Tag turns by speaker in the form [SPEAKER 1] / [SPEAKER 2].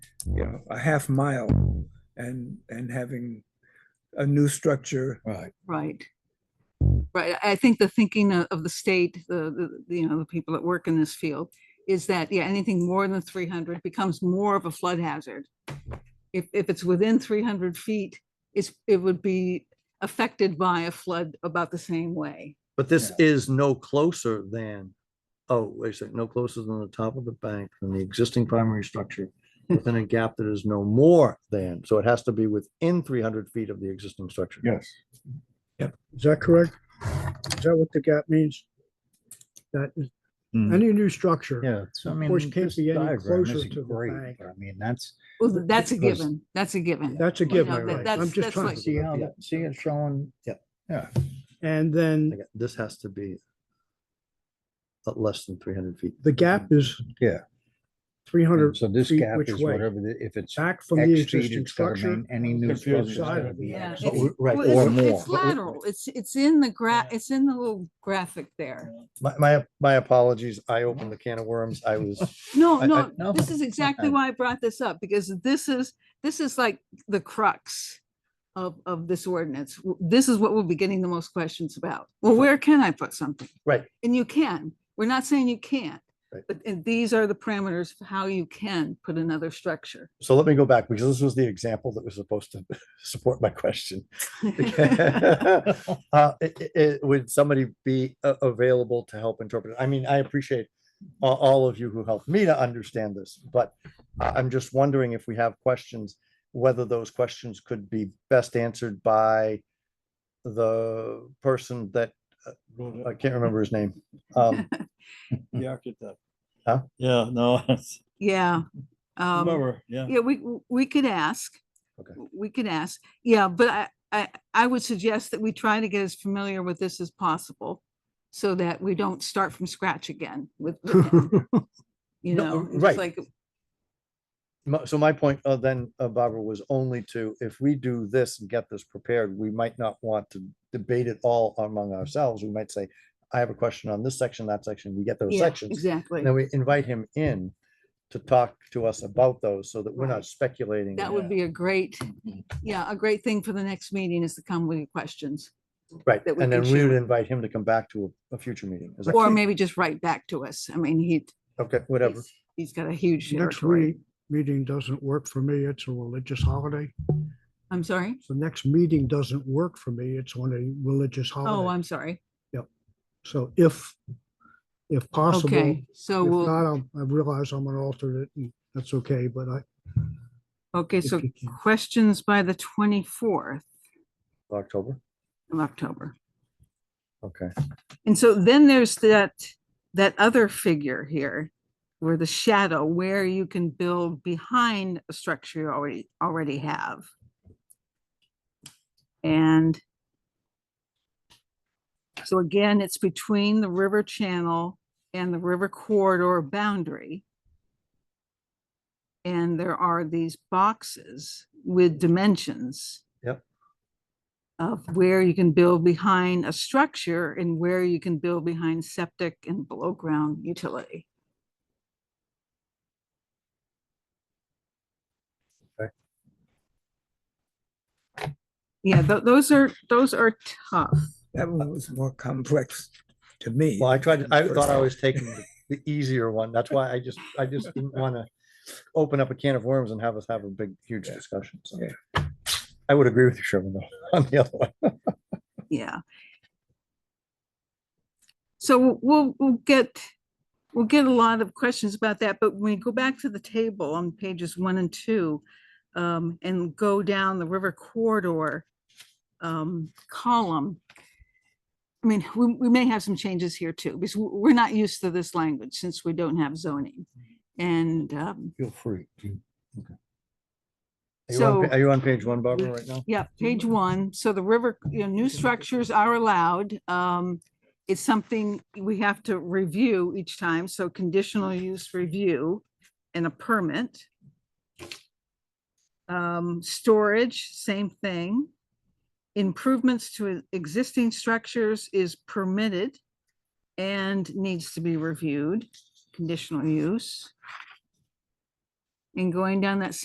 [SPEAKER 1] you know, a half mile and, and having a new structure.
[SPEAKER 2] Right.
[SPEAKER 3] Right. Right. I think the thinking o- of the state, the, the, you know, the people that work in this field is that, yeah, anything more than three hundred becomes more of a flood hazard. If, if it's within three hundred feet, it's, it would be affected by a flood about the same way.
[SPEAKER 4] But this is no closer than, oh, wait a second, no closer than the top of the bank than the existing primary structure within a gap that is no more than, so it has to be within three hundred feet of the existing structure.
[SPEAKER 2] Yes.
[SPEAKER 5] Is that correct? Is that what the gap means? That is,
[SPEAKER 2] Mhm.
[SPEAKER 5] any new structure,
[SPEAKER 2] Yeah. so I
[SPEAKER 5] Of course,
[SPEAKER 2] mean,
[SPEAKER 5] can't
[SPEAKER 2] this
[SPEAKER 5] be any
[SPEAKER 2] diagram
[SPEAKER 5] closer
[SPEAKER 2] isn't
[SPEAKER 5] to the
[SPEAKER 2] great,
[SPEAKER 5] bank.
[SPEAKER 2] but I mean, that's.
[SPEAKER 3] Well, th- that's a
[SPEAKER 2] because-
[SPEAKER 3] given. That's a given.
[SPEAKER 5] that's a
[SPEAKER 3] You know,
[SPEAKER 5] given,
[SPEAKER 3] that-
[SPEAKER 5] right?
[SPEAKER 3] that's-
[SPEAKER 5] I'm just
[SPEAKER 3] that's
[SPEAKER 5] trying,
[SPEAKER 3] what-
[SPEAKER 2] See how,
[SPEAKER 4] Yeah.
[SPEAKER 2] that- see it showing?
[SPEAKER 4] Yeah.
[SPEAKER 2] Yeah.
[SPEAKER 5] and
[SPEAKER 4] I
[SPEAKER 5] then
[SPEAKER 4] got- This has to be at less than three hundred feet.
[SPEAKER 5] the gap is
[SPEAKER 2] Yeah.
[SPEAKER 5] three
[SPEAKER 2] And
[SPEAKER 5] hundred
[SPEAKER 2] So this
[SPEAKER 5] feet
[SPEAKER 2] gap
[SPEAKER 5] which
[SPEAKER 2] is
[SPEAKER 5] way?
[SPEAKER 2] whatever, the- if it's
[SPEAKER 5] back from the
[SPEAKER 2] X feet,
[SPEAKER 5] existing
[SPEAKER 2] it's gotta
[SPEAKER 5] structure.
[SPEAKER 2] mean any new
[SPEAKER 6] Confusing.
[SPEAKER 2] structure. is gotta be
[SPEAKER 3] Yeah,
[SPEAKER 2] X.
[SPEAKER 4] But
[SPEAKER 3] it's-
[SPEAKER 4] we- Oh, Right,
[SPEAKER 3] Well,
[SPEAKER 4] or
[SPEAKER 3] it's-
[SPEAKER 4] more.
[SPEAKER 3] It's lateral. It's, it's in the gra, it's in the little graphic there.
[SPEAKER 4] My, my, my apologies, I opened the can of worms, I was.
[SPEAKER 3] No,
[SPEAKER 4] I- I-
[SPEAKER 3] no,
[SPEAKER 2] no,
[SPEAKER 3] this is exactly
[SPEAKER 2] fine.
[SPEAKER 3] why I brought this up, because this is, this is like the crux of, of this ordinance. W- This is what we'll be getting the most questions about. Well, where can I put something?
[SPEAKER 4] Right.
[SPEAKER 3] And you can. We're not saying you can't.
[SPEAKER 4] Right.
[SPEAKER 3] But, and these are the parameters of how you can put another structure.
[SPEAKER 4] So let me go back, because this was the example that was supposed to support my question. Uh, i- i- i- Would somebody be a- available to help interpret? it? I mean, I appreciate a- all of you who helped me to understand this, but I- I'm just wondering if we have questions, whether those questions could be best answered by the person that, uh, I can't remember his name. Um,
[SPEAKER 6] The architect.
[SPEAKER 4] Huh?
[SPEAKER 6] Yeah, no, it's-
[SPEAKER 3] Yeah. um,
[SPEAKER 6] whoever, yeah.
[SPEAKER 3] Yeah, we, w- we could ask.
[SPEAKER 4] Okay.
[SPEAKER 3] W- We could ask. Yeah, but I, I, I would suggest that we try to get as familiar with this as possible so that we don't start from scratch again with, with him. you
[SPEAKER 4] No,
[SPEAKER 3] know, it's
[SPEAKER 4] right.
[SPEAKER 3] like,
[SPEAKER 4] My- So my point uh, then, uh, Barbara, was only to, if we do this and get this prepared, we might not want to debate it all among ourselves. We might say, I have a question on this section, that section, we get those
[SPEAKER 3] yeah,
[SPEAKER 4] sections.
[SPEAKER 3] exactly.
[SPEAKER 4] and Then we invite him in to talk to us about those so that we're
[SPEAKER 3] Right.
[SPEAKER 4] not speculating.
[SPEAKER 3] That would be a great,
[SPEAKER 4] Mm-hmm.
[SPEAKER 3] yeah, a great thing for the next meeting is to come with your questions.
[SPEAKER 4] Right,
[SPEAKER 3] that we
[SPEAKER 4] and
[SPEAKER 3] can
[SPEAKER 4] then we would
[SPEAKER 3] share.
[SPEAKER 4] invite him to come back to a, a future meeting. Is that-
[SPEAKER 3] Or maybe just write back to us. I mean, he,
[SPEAKER 4] Okay, whatever.
[SPEAKER 3] he's- he's got a huge
[SPEAKER 5] Next
[SPEAKER 3] territory.
[SPEAKER 5] week, meeting doesn't work for me. It's a religious holiday.
[SPEAKER 3] I'm sorry?
[SPEAKER 5] The next meeting doesn't work for me. It's on a religious
[SPEAKER 3] Oh,
[SPEAKER 5] holiday.
[SPEAKER 3] I'm sorry.
[SPEAKER 5] So if, if possible,
[SPEAKER 3] Okay, so
[SPEAKER 5] if
[SPEAKER 3] we'll,
[SPEAKER 5] not, I'm- I realize I'm an alternate and that's okay, but I,
[SPEAKER 3] okay,
[SPEAKER 5] if
[SPEAKER 3] so
[SPEAKER 5] you can-
[SPEAKER 3] questions by the 24th
[SPEAKER 4] October,
[SPEAKER 3] of October.
[SPEAKER 4] okay.
[SPEAKER 3] And so then there's that, that other figure here where the shadow, where you can build behind a structure you already, already have. And so again, it's between the river channel and the river corridor boundary. And there are these boxes with dimensions.
[SPEAKER 4] Yep.
[SPEAKER 3] Of where you can build behind a structure and where you can build behind septic and below ground utility.
[SPEAKER 4] Okay.
[SPEAKER 3] Yeah, tho- those are, those are tough.
[SPEAKER 1] That one was more complex to me.
[SPEAKER 4] Well, I tried,
[SPEAKER 1] than the
[SPEAKER 4] I
[SPEAKER 1] first
[SPEAKER 4] thought I
[SPEAKER 1] one.
[SPEAKER 4] was taking the- the easier one. That's why I just, I just didn't want to open up a can of worms and have us have a big, huge
[SPEAKER 1] Yeah.
[SPEAKER 4] discussion. So
[SPEAKER 1] Yeah.
[SPEAKER 4] I would agree with you, Sherman, though, on the other one.
[SPEAKER 3] Yeah. So we'll- we'll, we'll get, we'll get a lot of questions about that, but when we go back to the table on pages one and two um, and go down the river corridor um, column, I mean, we, we may have some changes here too, because we- we're not used to this language since we don't have zoning. And um,
[SPEAKER 2] Feel free.
[SPEAKER 4] Are you on
[SPEAKER 3] So-
[SPEAKER 4] pa- Are you on page one, Barbara, right now?
[SPEAKER 3] Yeah, page one. So mm-hmm. the river, you know, new structures are allowed. Um, it's something we have to review each time. So conditional use review and a permit. Um, storage, same thing. Improvements to existing structures is permitted and needs to be reviewed, conditional use. And going down that